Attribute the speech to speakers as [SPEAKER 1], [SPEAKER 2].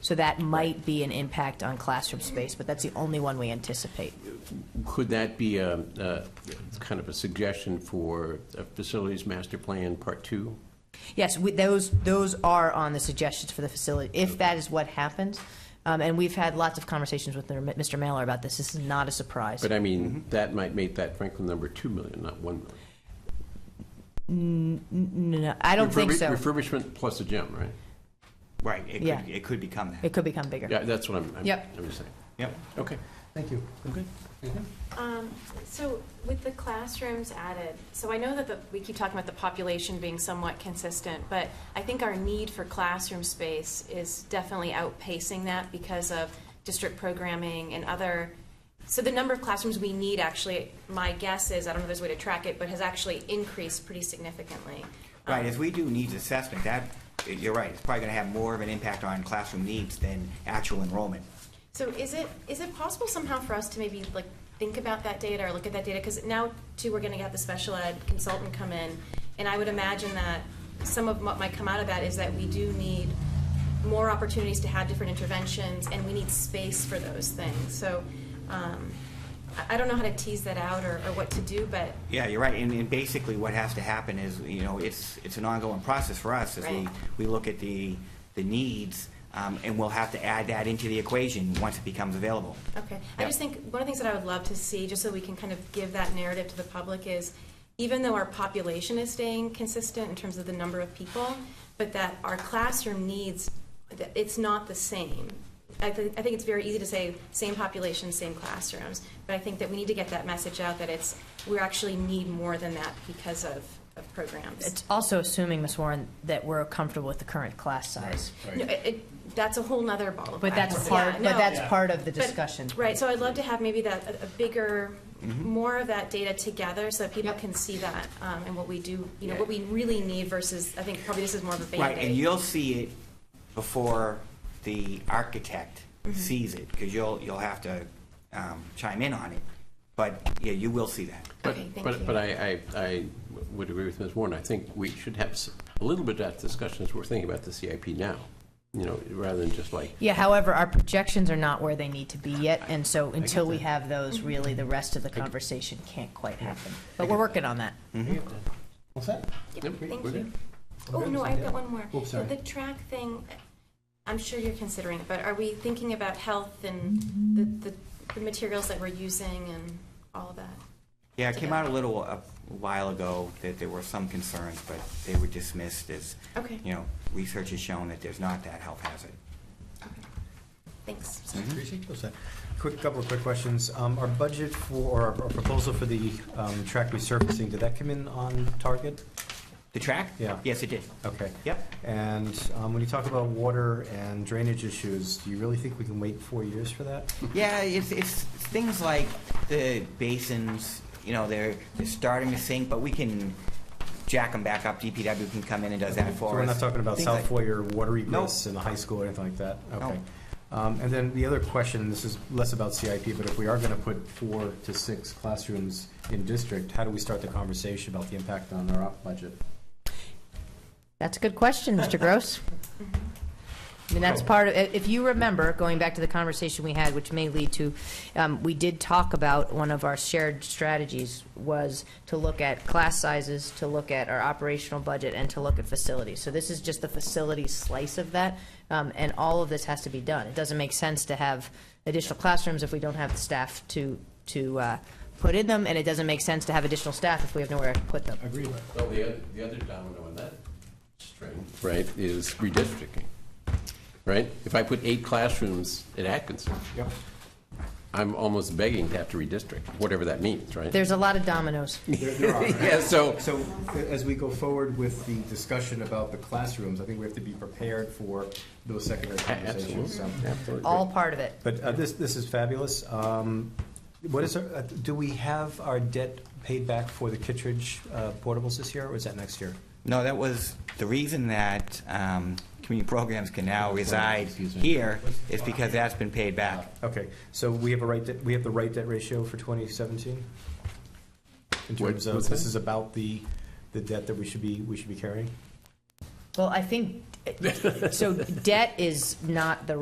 [SPEAKER 1] So that might be an impact on classroom space, but that's the only one we anticipate.
[SPEAKER 2] Could that be a, a kind of a suggestion for a facilities master plan part two?
[SPEAKER 1] Yes, we, those, those are on the suggestions for the facility, if that is what happens. Um, and we've had lots of conversations with Mr. Mailer about this. This is not a surprise.
[SPEAKER 2] But I mean,
[SPEAKER 3] Mm-hmm.
[SPEAKER 2] that might make that Franklin number 2 million, not 1 million.
[SPEAKER 1] No, I don't think so.
[SPEAKER 2] Refurbish- Refurbishment plus a gym, right?
[SPEAKER 4] Right, it
[SPEAKER 1] Yeah.
[SPEAKER 4] could, it could become that.
[SPEAKER 1] It could become bigger.
[SPEAKER 2] Yeah, that's what I'm, I'm
[SPEAKER 1] Yep.
[SPEAKER 2] I'm just saying.
[SPEAKER 4] Yep.
[SPEAKER 5] Uh.
[SPEAKER 2] Okay,
[SPEAKER 3] Thank you.
[SPEAKER 2] okay.
[SPEAKER 5] Um, So with the classrooms added, so I know that the- we keep talking about the population being somewhat consistent, but I think our need for classroom space is definitely outpacing that because of district programming and other, so the number of classrooms we need actually, my guess is, I don't know if there's a way to track it, but has actually increased pretty significantly.
[SPEAKER 4] Right, if we do needs assessment, that, you're right, it's probably gonna have more of an impact on classroom needs than actual enrollment.
[SPEAKER 5] So is it, is it possible somehow for us to maybe like think about that data or look at that data? Because now too, we're gonna have the special ed consultant come in. And I would imagine that some of what might come out of that is that we do need more opportunities to have different interventions and we need space for those things. So, um, I, I don't know how to tease that out or, or what to do, but
[SPEAKER 4] Yeah, you're right, and, and basically what has to happen is, you know, it's, it's an ongoing process for us as we,
[SPEAKER 5] Right.
[SPEAKER 4] we look at the, the needs, um, and we'll have to add that into the equation once it becomes available.
[SPEAKER 5] Okay, I
[SPEAKER 4] Yeah.
[SPEAKER 5] just think, one of the things that I would love to see, just so we can kind of give that narrative to the public, is even though our population is staying consistent in terms of the number of people, but that our classroom needs, that it's not the same. I think, I think it's very easy to say, same population, same classrooms, but I think that we need to get that message out that it's, we actually need more than that because of, of programs.
[SPEAKER 1] It's also assuming, Ms. Warren, that we're comfortable with the current class size.
[SPEAKER 5] No, it, it, that's a whole nother ball of
[SPEAKER 1] But that's
[SPEAKER 5] wax.
[SPEAKER 1] part,
[SPEAKER 5] Yeah,
[SPEAKER 1] but
[SPEAKER 5] no.
[SPEAKER 1] that's part of the
[SPEAKER 5] But-
[SPEAKER 1] discussion.
[SPEAKER 5] Right, so I'd love to have maybe that, a- a bigger, more of that data together so that people can see that um, and what we do, you know, what we really need versus, I think probably this is more of a
[SPEAKER 4] Right, and
[SPEAKER 5] Band-Aid.
[SPEAKER 4] you'll see it before the architect
[SPEAKER 5] Mm-hmm.
[SPEAKER 4] sees it, because you'll, you'll have to um, chime in on it. But, yeah, you will see that.
[SPEAKER 2] But-
[SPEAKER 5] Okay, thank
[SPEAKER 2] But,
[SPEAKER 5] you.
[SPEAKER 2] but I, I, I would agree with Ms. Warren. I think we should have s- a little bit of that discussion as we're thinking about the CIP now, you know, rather than just like,
[SPEAKER 1] Yeah, however, our projections are not where they need to be yet, and so until we have those, really, the rest of the conversation can't quite happen. But we're working on that.
[SPEAKER 3] What's that?
[SPEAKER 5] Yeah,
[SPEAKER 2] Nope,
[SPEAKER 5] Thank
[SPEAKER 2] we're
[SPEAKER 5] you.
[SPEAKER 2] good.
[SPEAKER 5] Oh, no, I've got one more.
[SPEAKER 3] Oops, sorry.
[SPEAKER 5] The track thing, I'm sure you're considering it, but are we thinking about health and the, the- the materials that we're using and all of that?
[SPEAKER 1] Mm-hmm.
[SPEAKER 4] Yeah, it came out a little a while ago that there were some concerns, but they were dismissed as,
[SPEAKER 5] Okay.
[SPEAKER 4] you know, research has shown that there's not that health hazard.
[SPEAKER 5] Okay. Thanks.
[SPEAKER 3] Tracy, what's that? Quick, couple of quick questions. Um, Our budget for, or our proposal for the um, track resurfacing, did that come in on target?
[SPEAKER 4] The track?
[SPEAKER 3] Yeah. Oh.
[SPEAKER 4] Yes, it did.
[SPEAKER 3] Okay.
[SPEAKER 4] Yep.
[SPEAKER 3] And um, when you talk about water and drainage issues, do you really think we can wait four years for that?
[SPEAKER 4] Yeah, it's, it's things like the basins, you know, they're, they're starting to sink, but we can jack them back up. DPW can come in and does that
[SPEAKER 3] So
[SPEAKER 4] for us.
[SPEAKER 3] we're not talking about
[SPEAKER 4] Things
[SPEAKER 3] South
[SPEAKER 4] like-
[SPEAKER 3] Foyer or watery
[SPEAKER 4] No.
[SPEAKER 3] growths in the high school or anything like that? Okay.
[SPEAKER 4] No.
[SPEAKER 3] Um, And then the other question, this is less about CIP, but if we are going to put four to six classrooms in district, how do we start the conversation about the impact on our op budget?
[SPEAKER 1] That's a good question, Mr. Gross. I mean, that's part of, if you remember, going back to the conversation we had, which may lead to, um, we did talk about one of our shared strategies was to look at class sizes, to look at our operational budget, and to look at facilities. So this is just the facility slice of that, um, and all of this has to be done. It doesn't make sense to have additional classrooms if we don't have the staff to, to uh, put in them, and it doesn't make sense to have additional staff if we have nowhere to put them.
[SPEAKER 3] Agreed.
[SPEAKER 2] well, the other, the other domino in that string, right, is redistricting, right? If I put eight classrooms at Atkinson,
[SPEAKER 3] Yep.
[SPEAKER 2] I'm almost begging to have to redistrict, whatever that means, right?
[SPEAKER 1] There's a lot of dominoes.
[SPEAKER 3] There- there are.
[SPEAKER 2] Yeah, so,
[SPEAKER 3] So a- as we go forward with the discussion about the classrooms, I think we have to be prepared for those secondary conversations. so.
[SPEAKER 2] absolutely.
[SPEAKER 1] all part of it.
[SPEAKER 3] But uh, this, this is fabulous. Um, What is, our- uh, do we have our debt paid back for the Kittredge uh, portables this year, or is that next year?
[SPEAKER 4] No, that was, the reason that um, community programs can now reside
[SPEAKER 3] Excuse me.
[SPEAKER 4] here is because that's been paid back.
[SPEAKER 3] Okay, so we have a right, debt- we have the right debt ratio for 2017? In
[SPEAKER 2] What-
[SPEAKER 3] terms of,
[SPEAKER 2] what's
[SPEAKER 3] this
[SPEAKER 2] that?
[SPEAKER 3] is about the, the debt that we should be, we should be carrying?
[SPEAKER 1] Well, I think, so debt is not the